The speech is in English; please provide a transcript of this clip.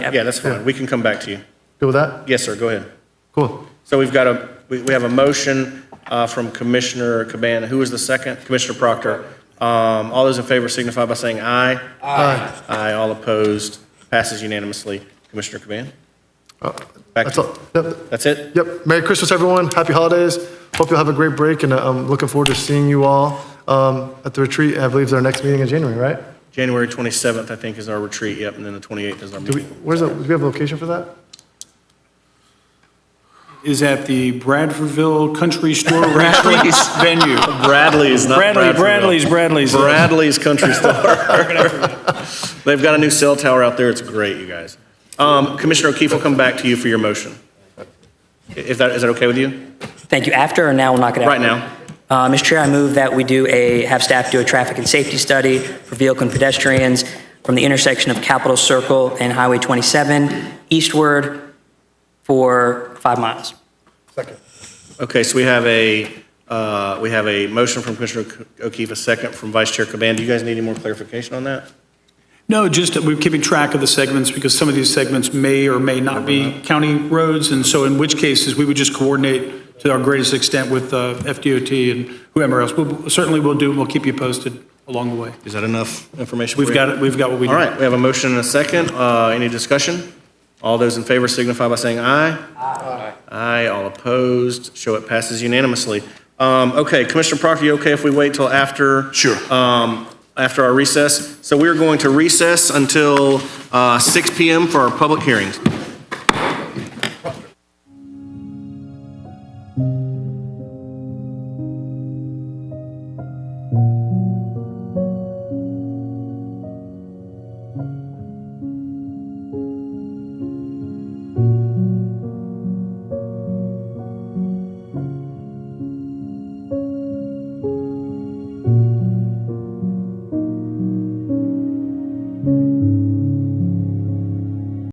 Yeah, that's fine. We can come back to you. Good with that? Yes, sir, go ahead. Cool. So we've got a, we we have a motion uh, from Commissioner Cabana. Who was the second? Commissioner Proctor. Um, All those in favor signify by saying aye. Aye. Aye, all opposed. Passes unanimously. Commissioner Cabana? Back Uh, That's to- all. Yep. That's it? Yep. Merry Christmas, everyone. Happy holidays. Hope you'll have a great break, and uh, I'm looking forward to seeing you all um, at the retreat. I believe it's our next meeting in January, right? January 27th, I think, is our retreat, yep, and then the 28th is our Do we, meeting. where's that, do we have a location for that? is at the Bradfordville Country Store Restaurant venue. Bradley's, not Bradley, Bradfordville. Bradley's, Bradley's. Bradley's Country Store. They've got a new cell tower out there. It's great, you guys. Um, Commissioner O'Keefe, we'll come back to you for your motion. I- If that, is that okay with you? Thank you. After or now, we'll knock it out? Right now. Uh, Mr. Chair, I move that we do a, have staff do a traffic and safety study for vehicle and pedestrians from the intersection of Capitol Circle and Highway 27 eastward for five miles. Okay, so we have a, uh, we have a motion from Commissioner O'Keefe, a second from Vice Chair Caban. Do you guys need any more clarification on that? No, just that we're keeping track of the segments because some of these segments may or may not be county roads. And so in which cases, we would just coordinate to our greatest extent with uh, FDOT and whoever else. We'll- Certainly we'll do, and we'll keep you posted along the way. Is that enough information? for We've you? got, it. we've got what we need. All right, we have a motion and a second. Uh, Any discussion? All those in favor signify by saying aye. Aye. Aye, all opposed. Show it passes unanimously. Um, Okay, Commissioner Proctor, you okay if we wait till after? Sure. After our recess? So we're going to recess until uh, 6 PM for our public hearings.